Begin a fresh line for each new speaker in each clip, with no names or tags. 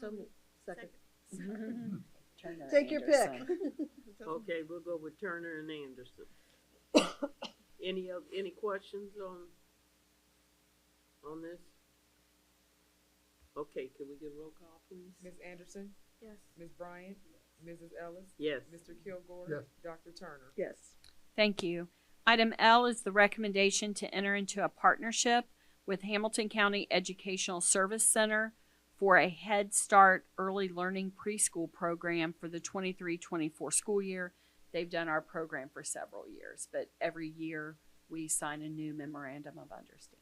moved.
Turner
Second. Mm-hmm. Take your pick.
Anderson.
Okay, we'll go with Turner and Anderson. Any of, any questions on, on this? Okay, can we get a roll call, please?
Ms. Anderson,
Yes.
Ms. Bryant, Mrs. Ellis,
Yes.
Mr. Kilgore,
Yes.
Dr. Turner.
Yes.
Thank you. Item L is the recommendation to enter into a partnership with Hamilton County Educational Service Center for a Head Start Early Learning Preschool Program for the 23-24 school year. They've done our program for several years, but every year we sign a new memorandum of understanding.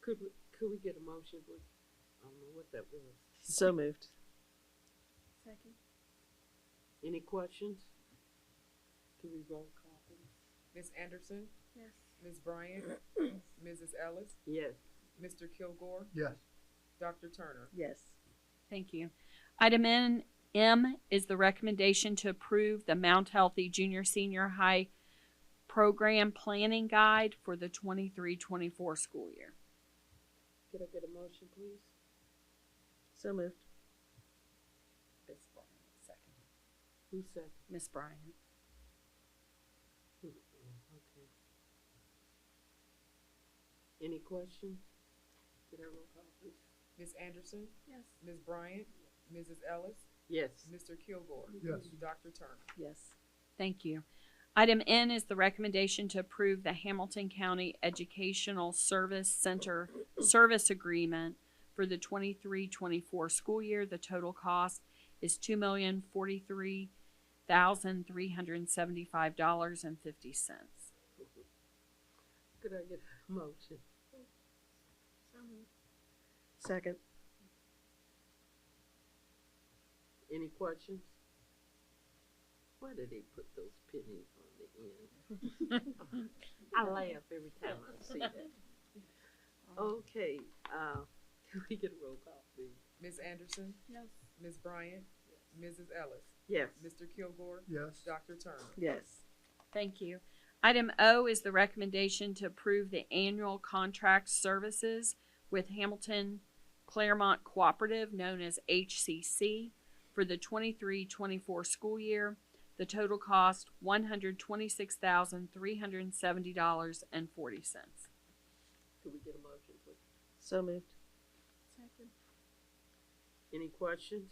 Could, we- could we get a motion, please? I don't know what that was.
So moved.
Second.
Any questions? Can we roll call, please?
Ms. Anderson,
Yes.
Ms. Bryant, Mrs. Ellis,
Yes.
Mr. Kilgore,
yes,
Dr. Turner.
Yes.
Thank you. Item N, M is the recommendation to approve the Mount Healthy Junior Senior High Program Planning Guide for the 23-24 school year.
Could I get a motion, please?
So moved.
Ms. Bryant, second.
Who said?
Ms. Bryant.
oh, Okay. Any questions? Could I roll call, please?
Ms. Anderson,
Yes.
Ms. Bryant, Mrs. Ellis,
Yes.
Mr. Kilgore,
yes,
Dr. Turner.
Yes. Thank you. Item N is the recommendation to approve the Hamilton County Educational Service Center Service Agreement for the 23-24 school year. The total cost is two million forty-three thousand three hundred and seventy-five dollars and fifty cents.
Could I get a motion?
So moved.
Second.
Any questions? Why do they put those pennies on the end? I laugh every time I see that. Okay, uh, can we get a roll call, please?
Ms. Anderson,
Yes.
Ms. Bryant, Mrs. Ellis,
Yes.
Mr. Kilgore,
yes,
Dr. Turner.
Yes.
Thank you. Item O is the recommendation to approve the annual contract services with Hamilton Claremont Cooperative, known as HCC, for the 23-24 school year. The total cost, one hundred twenty-six thousand, three hundred and seventy dollars and forty cents.
Could we get a motion, please?
So moved.
Second.
Any questions?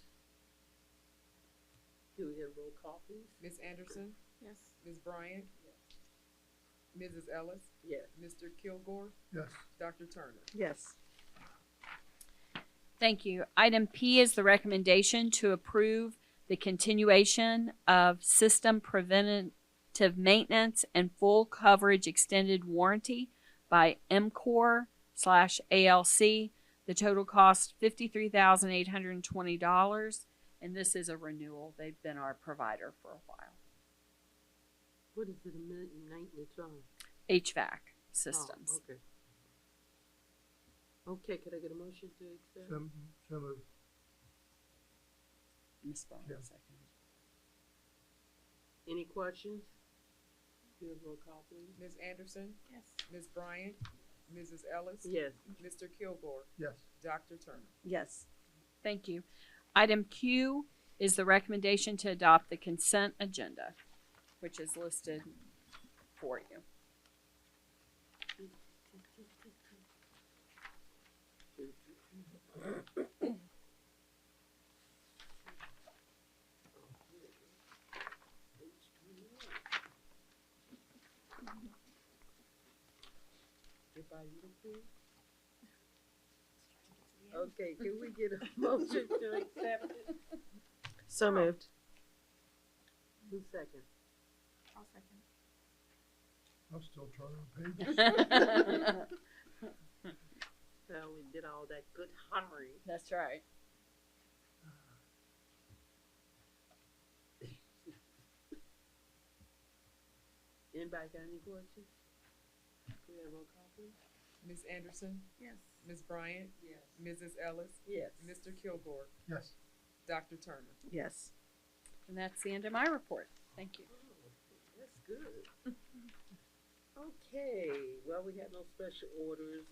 Can we get a roll call, please?
Ms. Anderson,
Yes.
Ms. Bryant, Mrs. Ellis,
Yes.
Mr. Kilgore,
yes,
Dr. Turner.
Yes.
Thank you. Item P is the recommendation to approve the continuation of system preventative maintenance and full coverage extended warranty by MCOR slash ALC. The total cost fifty-three thousand eight hundred and twenty dollars, and this is a renewal. They've been our provider for a while.
What is it, a minute and maintenance on?
HVAC
Oh,
systems.
Okay. Okay, could I get a motion to accept?
so, so moved,
Ms. Bryant,
Yeah.
second.
Any questions? Give a roll call, please.
Ms. Anderson,
Yes.
Ms. Bryant, Mrs. Ellis,
Yes.
Mr. Kilgore,
yes,
Dr. Turner.
Yes.
Thank you. Item Q is the recommendation to adopt the consent agenda, which is listed for you.
Everybody looking? Okay, can we get a motion to accept it?
So moved.
Who's second?
I'll second.
I'm still turning the page,
Well, we did all that good honoring.
That's right.
Anybody got any questions? Can we have a roll call, please?
Ms. Anderson,
Yes.
Ms. Bryant,
Yes.
Mrs. Ellis,
Yes.
Mr. Kilgore,
yes,
Dr. Turner.
Yes.
And that's the end of my report. Thank you.
That's good. Okay, well, we had no special orders